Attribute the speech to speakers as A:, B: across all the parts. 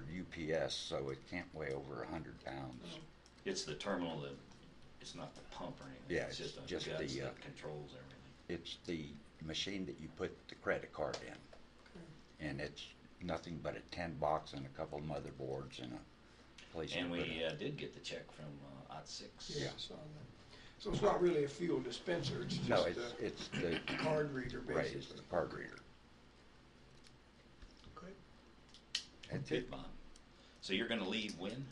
A: GPS, so it can't weigh over a hundred pounds.
B: It's the terminal that, it's not the pump or anything.
A: Yeah, it's
B: a
A: just
B: guts
A: the, uh,
B: That controls everything.
A: It's the machine that you put the credit card in. And it's nothing but a tin box and a couple motherboards and a place to
B: And
A: put
B: we
A: it.
B: uh, did get the check from uh, OT six.
A: Yeah.
C: Yes, on that. So it's not really a fuel dispenser, it's
A: No,
C: uh, just
A: it's,
C: a
A: it's the,
C: card reader,
A: right, it's the
C: basically.
A: card reader.
C: Okay.
A: That's
B: Good,
A: it,
B: Bob. So you're gonna leave when?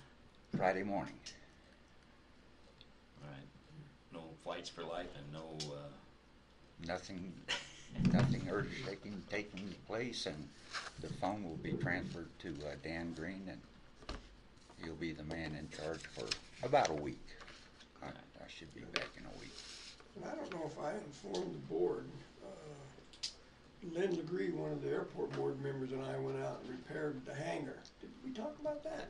A: Friday morning.
B: All right. No flights for life and no, uh,
A: Nothing, nothing earth-shaking taking place, and the phone will be transferred to uh, Dan Green, and he'll be the man in charge for about a week. I, I should be back in a week.
C: And I don't know if I informed the board, uh, Lynn Legree, one of the airport board members, and I went out and repaired the hangar. Did we talk about that?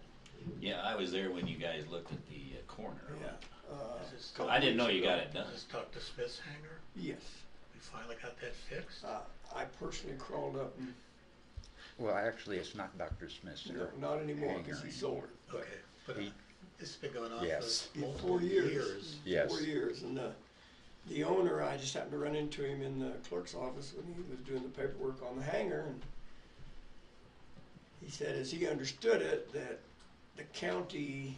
B: yeah, I was there when you guys looked at the uh, corner.
C: Yeah. uh,
D: This is-
B: I didn't know you got it done.
D: Let's talk to Smith's hangar.
C: Yes,
D: We finally got that fixed.
C: Uh, I personally crawled up and,
A: Well, actually, it's not Dr. Smith's. uh,
C: no,
A: there.
C: not anymore,
A: Hangar.
C: because he sold it. but-
D: Okay, but
A: He-
D: it's been going on
A: Yes.
D: for
C: Yeah,
D: multiple
C: Four years.
D: years.
A: Yes.
C: Four years, and the, the owner, I just happened to run into him in the clerk's office when he was doing the paperwork on the hangar, and he said, as he understood it, that the county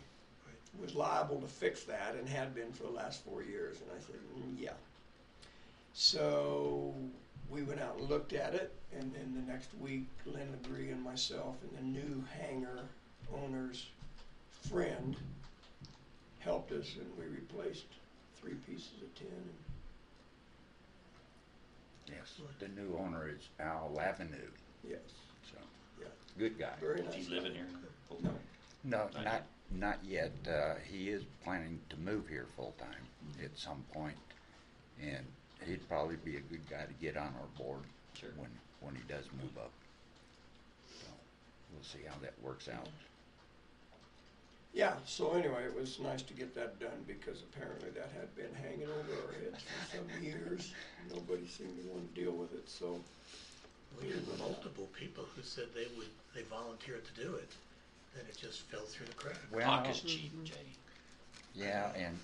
C: was liable to fix that and had been for the last four years, and I said, "Mm, yeah. So we went out and looked at it, and then the next week, Lynn Legree and myself and the new hangar owner's friend helped us, and we replaced three pieces of tin. And
A: Yes, the new owner is Al Lavenue,
C: yes,
A: so,
C: yeah,
A: good guy.
C: very
B: Is
C: nice.
B: he living here? full
C: No.
B: time?
A: No,
B: Not
A: not,
B: yet.
A: not yet. Uh, he is planning to move here full-time
B: Mm-hmm.
A: at some point, and he'd probably be a good guy to get on our board
B: Sure.
A: when, when he does move up. So, we'll see how that works out.
C: Yeah. So anyway, it was nice to get that done because apparently that had been hanging over our heads for some years. Nobody seemed to want to deal with it. So
D: We had multiple people who said they would, they volunteered to do it, then it just fell through the cracks.
B: Talk
A: Well,
B: is cheap, Jay.
A: yeah, and,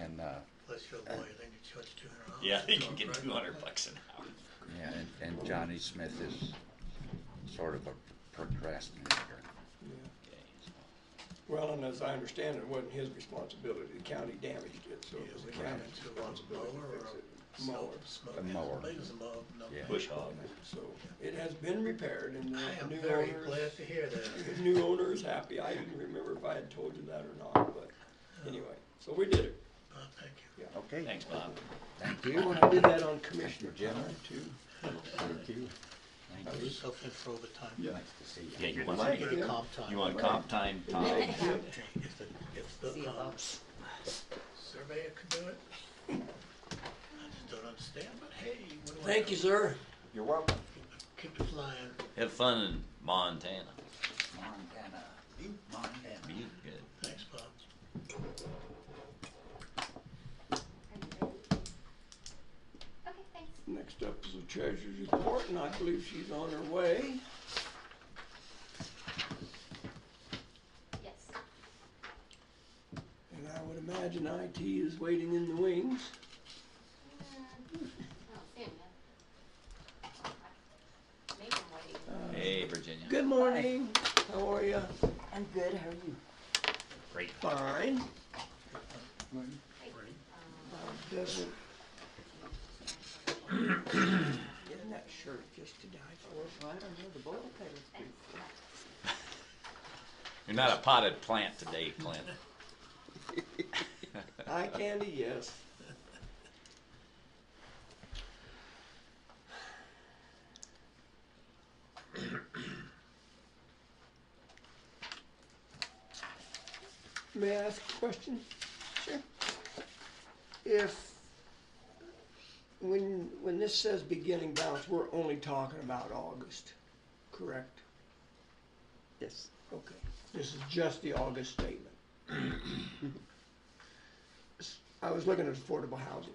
A: and, uh,
D: Unless you're a lawyer, then you charge two hundred dollars.
B: Yeah, they can get two hundred bucks an hour.
A: yeah, and- and Johnny Smith is sort of a procrastinator.
C: yeah.
B: Okay.
C: Well, and as I understand it, it wasn't his responsibility. The county damaged it, so
D: Yeah,
C: it was the
D: we ran
C: county's
D: into a
C: responsibility
D: mower
C: to
D: or
C: fix it.
D: a
C: Mower.
D: smoke, smoke.
A: A mower.
D: Maybe it was a mower, no.
A: Yeah.
B: Bush hog.
C: So it has been repaired and
D: I
C: the
D: am
C: new
D: very
C: owners-
D: glad to hear that.
C: The new owner is happy. I didn't remember if I had told you that or not, but anyway, so we did it.
D: Bob, thank you.
A: Okay.
B: Thanks, Bob.
A: Thank
C: You
A: you.
C: want to do that on Commissioner
A: Gentlemen.
C: General too?
A: Thank you.
D: I
A: Thank
D: was
A: you.
D: hoping for overtime.
A: Nice to see you.
B: Yeah, you
D: Once
B: want-
D: I get a comp time.
B: You want comp time, Tom?
D: If the, if the, um, surveyor could do it. I just don't understand, but hey, what do I know?
C: Thank you, sir.
A: You're welcome.
D: Keep it flying.
B: Have fun in Montana.
A: Montana, Butte, Montana.
B: You good.
D: Thanks, Bob.
E: Okay, thanks.
C: Next up is the treasurer's report, and I believe she's on her way.
E: Yes.
C: And I would imagine IT is waiting in the wings.
E: Mm-hmm. I don't see him yet. Maybe I'm waiting.
B: Hey, Virginia.
C: Good morning. How are you?
F: I'm good, how are you?
B: Great.
C: Fine.
E: Hey,
C: Doesn't,
E: um,
C: isn't that shirt just to die for?
F: I don't know, the boil pit is pretty.
B: You're not a potted plant today, Clint.
C: Eye candy, yes. May I ask a question? Sure. If, when, when this says beginning balance, we're only talking about August, correct?
F: Yes.
C: Okay, this is just the August statement. I was looking at affordable housing.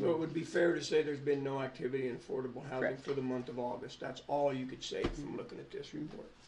C: So it would be fair to say there's been no activity in affordable housing
F: Correct.
C: for the month of August. That's all you could say from looking at this report.